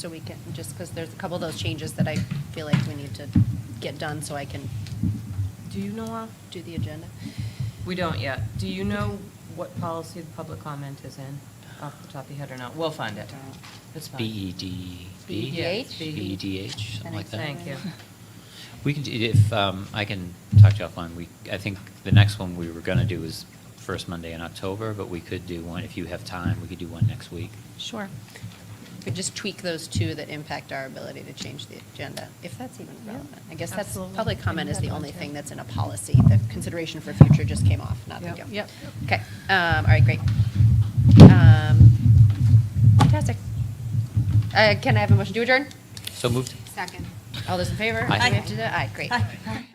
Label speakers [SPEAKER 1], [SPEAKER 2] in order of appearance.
[SPEAKER 1] So we can, just because there's a couple of those changes that I feel like we need to get done so I can
[SPEAKER 2] Do you know, uh,
[SPEAKER 1] do the agenda.
[SPEAKER 2] we don't yet. Do you know what policy the public comment is in off the top of your head or not? We'll find it. It's fine.
[SPEAKER 3] E BEDB?
[SPEAKER 1] BEDH?
[SPEAKER 3] BEDH, E something like that.
[SPEAKER 2] E Thank you.
[SPEAKER 3] We can, d- if, um, I can talk to you offline, we, I think the next one we were gonna do is first Monday in October, but we could do one, if you have time, we could do one next week.
[SPEAKER 1] Sure. But just tweak those two that impact our ability to change the agenda, if that's even
[SPEAKER 2] Yeah,
[SPEAKER 1] relevant. I guess that's,
[SPEAKER 2] absolutely.
[SPEAKER 1] public comment
[SPEAKER 2] And
[SPEAKER 1] is the
[SPEAKER 2] that one
[SPEAKER 1] only
[SPEAKER 2] too.
[SPEAKER 1] thing that's in a policy. The consideration for future just came off, not the
[SPEAKER 2] Yep.
[SPEAKER 1] deal.
[SPEAKER 2] Yep.
[SPEAKER 1] Okay, um, all right, great. Um, Fantastic. Uh, Can I have a motion to adjourn?
[SPEAKER 3] So moved?
[SPEAKER 1] Second. All those in favor?
[SPEAKER 3] Aye.
[SPEAKER 1] Do we have to do that? Aye, great.
[SPEAKER 4] Aye.